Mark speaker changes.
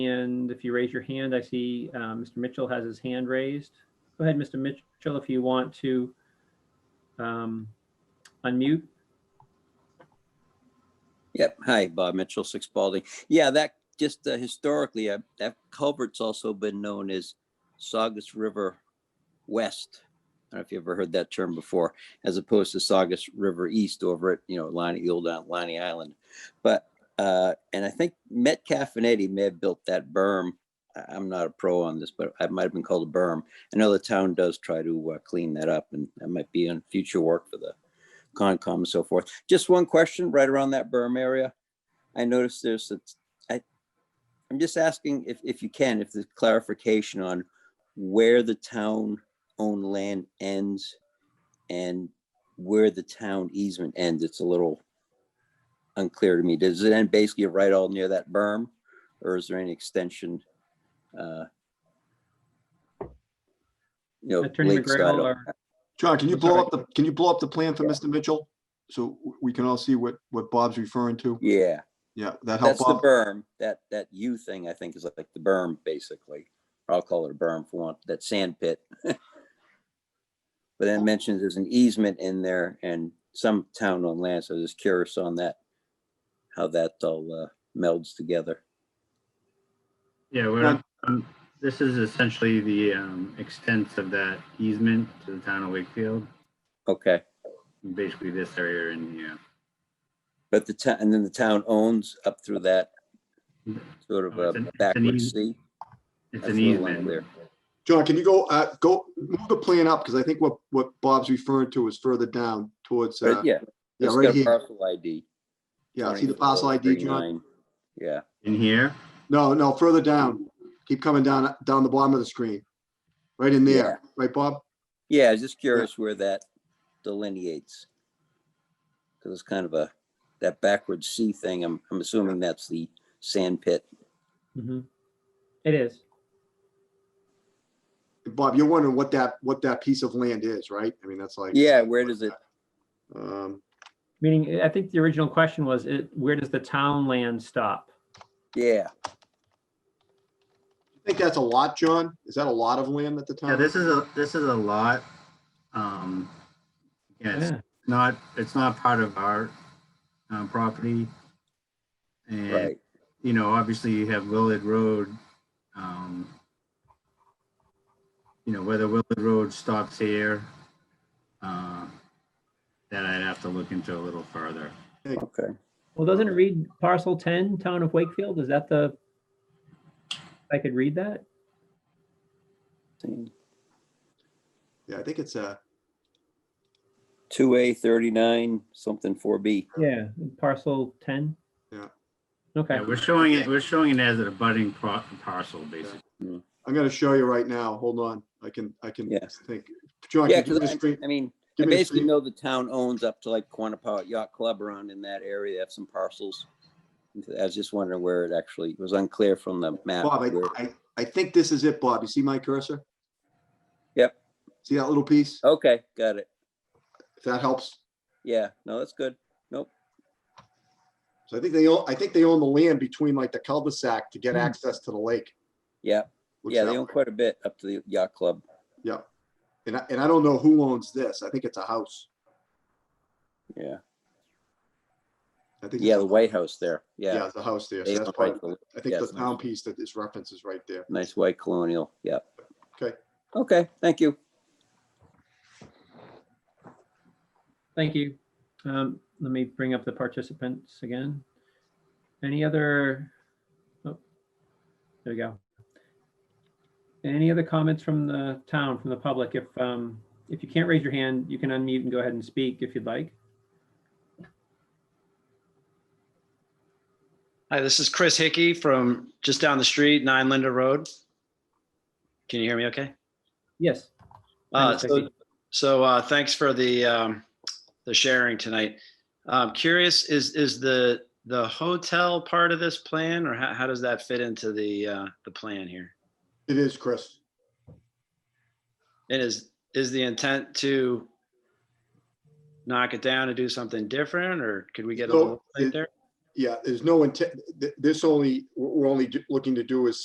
Speaker 1: And if you raise your hand, I see um, Mr. Mitchell has his hand raised. Go ahead, Mr. Mitchell, if you want to um, unmute.
Speaker 2: Yep. Hi, Bob Mitchell, Six Balding. Yeah, that just uh, historically, uh, that culvert's also been known as Saugus River West. I don't know if you ever heard that term before, as opposed to Saugus River East over at, you know, Lonnie, the old uh, Lonnie Island. But, uh, and I think Metcalf and Eddie may have built that berm. I- I'm not a pro on this, but it might have been called a berm. I know the town does try to uh, clean that up and that might be in future work for the Concom and so forth. Just one question right around that berm area. I noticed there's, a- I, I'm just asking if, if you can, if there's clarification on where the town-owned land ends and where the town easement ends. It's a little unclear to me. Does it end basically right all near that berm? Or is there any extension? uh, You know,
Speaker 1: Attorney
Speaker 2: lakeside
Speaker 1: McGrail
Speaker 2: or-
Speaker 1: or
Speaker 3: John, can you
Speaker 1: I'm
Speaker 3: blow
Speaker 1: sorry.
Speaker 3: up the, can you blow up the plan for Mr. Mitchell? So w- we can all see what, what Bob's referring to?
Speaker 2: Yeah.
Speaker 3: Yeah, that help
Speaker 2: That's the
Speaker 3: Bob?
Speaker 2: berm, that, that U thing, I think is like the berm, basically. I'll call it a berm for want, that sand pit. But then it mentions there's an easement in there and some town on land, so I was just curious on that. How that all uh, melds together.
Speaker 4: Yeah, we're,
Speaker 3: Now-
Speaker 4: um, this is essentially the um, extent of that easement to the town of Wakefield,
Speaker 2: Okay,
Speaker 4: basically this area in here.
Speaker 2: but the town, and then the town owns up through that sort of
Speaker 4: Oh, it's an-
Speaker 2: a
Speaker 4: it's an
Speaker 2: backwards
Speaker 4: eas-
Speaker 2: sea.
Speaker 4: It's
Speaker 2: That's
Speaker 4: an
Speaker 2: a little
Speaker 4: easement.
Speaker 2: unclear.
Speaker 3: John, can you go, uh, go, move the plan up, because I think what, what Bob's referring to is further down towards, uh,
Speaker 2: But yeah,
Speaker 3: yeah,
Speaker 2: it's
Speaker 3: right
Speaker 2: got a
Speaker 3: here.
Speaker 2: parcel ID.
Speaker 3: Yeah, see the parcel ID, John?
Speaker 2: 2439. Yeah,
Speaker 4: In here,
Speaker 3: No, no, further down. Keep coming down, down the bottom of the screen. Right in there, right, Bob?
Speaker 2: Yeah, I was just curious where that delineates. Because it's kind of a, that backward C thing, I'm, I'm assuming that's the sand pit.
Speaker 1: Mhm. It is.
Speaker 3: Bob, you're wondering what that, what that piece of land is, right? I mean, that's like,
Speaker 2: Yeah, where does it,
Speaker 3: um,
Speaker 1: Meaning, I think the original question was, it, where does the town land stop?
Speaker 2: yeah,
Speaker 3: I think that's a lot, John? Is that a lot of land at the time?
Speaker 4: yeah, this is a, this is a lot. Um, yeah, it's
Speaker 1: Yeah.
Speaker 4: not, it's not part of our uh, property. And, Mm-hmm.
Speaker 2: right,
Speaker 4: you know, obviously you have Willard Road. um, You know, whether Willard Road stops here, uh, that I'd have to look into a little further.
Speaker 2: okay.
Speaker 1: Well, doesn't it read parcel 10, town of Wakefield? Is that the? I could read that?
Speaker 3: Yeah, I think it's a,
Speaker 2: Two A thirty-nine, something four B.
Speaker 1: Yeah. Parcel 10?
Speaker 3: Yeah.
Speaker 1: Okay.
Speaker 4: Yeah, we're showing it, we're showing it as an abutting pro- parcel, basically.
Speaker 3: I'm gonna show you right now. Hold on. I can, I can
Speaker 2: Yeah.
Speaker 3: think. John,
Speaker 2: Yeah,
Speaker 3: can you Oh, give me the
Speaker 2: because I,
Speaker 3: screen?
Speaker 2: I mean, I
Speaker 3: Give me the
Speaker 2: basically
Speaker 3: screen.
Speaker 2: know the town owns up to like Quanapah Yacht Club around in that area, they have some parcels. I was just wondering where it actually, it was unclear from the map.
Speaker 3: Bob,
Speaker 2: where-
Speaker 3: I, I, I think this is it, Bob. You see my cursor?
Speaker 2: Yep. Oh.
Speaker 3: See that little piece?
Speaker 2: Okay, got it,
Speaker 3: If that helps.
Speaker 2: yeah, no, that's good.
Speaker 3: So I think they, own. I think they own the land between like the cul-de-sac to get
Speaker 1: Hmm.
Speaker 3: access to the lake.
Speaker 2: Yeah,
Speaker 3: looks
Speaker 2: yeah,
Speaker 3: that
Speaker 2: they own
Speaker 3: way.
Speaker 2: quite a bit up to the yacht club.
Speaker 3: And I, and I don't know who owns this. I think it's a house.
Speaker 2: Yeah,
Speaker 3: I think.
Speaker 2: yeah,
Speaker 3: it's a-
Speaker 2: the White House there.
Speaker 3: Yeah,
Speaker 2: Yeah.
Speaker 3: it's a house there. So
Speaker 2: They
Speaker 3: that's
Speaker 2: own
Speaker 3: part
Speaker 2: White-
Speaker 3: of, I think
Speaker 2: yeah,
Speaker 3: the
Speaker 2: it's
Speaker 3: town piece that this reference is right there.
Speaker 2: Nice white colonial. Yeah.
Speaker 3: Okay.
Speaker 2: Okay, thank you.
Speaker 1: Thank you. Um, Let me bring up the participants again. Any other? oh, There we go. Any other comments from the town, from the public? If, um, if you can't raise your hand, you can unmute and go ahead and speak if you'd like.
Speaker 5: Hi, this is Chris Hickey from just down the street, Nine Linda Road. Can you hear me okay?
Speaker 1: Yes.
Speaker 5: Uh,
Speaker 1: Thanks,
Speaker 5: so,
Speaker 1: Hickey.
Speaker 5: so, uh, thanks for the, um, the sharing tonight. I'm curious, is, is the, the hotel part of this plan or how, how does that fit into the, uh, the plan here?
Speaker 3: It is, Chris.
Speaker 5: And is, is the intent to knock it down and do something different or could we get a
Speaker 3: No,
Speaker 5: little
Speaker 3: it-
Speaker 5: bit there?
Speaker 3: yeah, there's no intent, th- this only, we're we're only do- looking to do is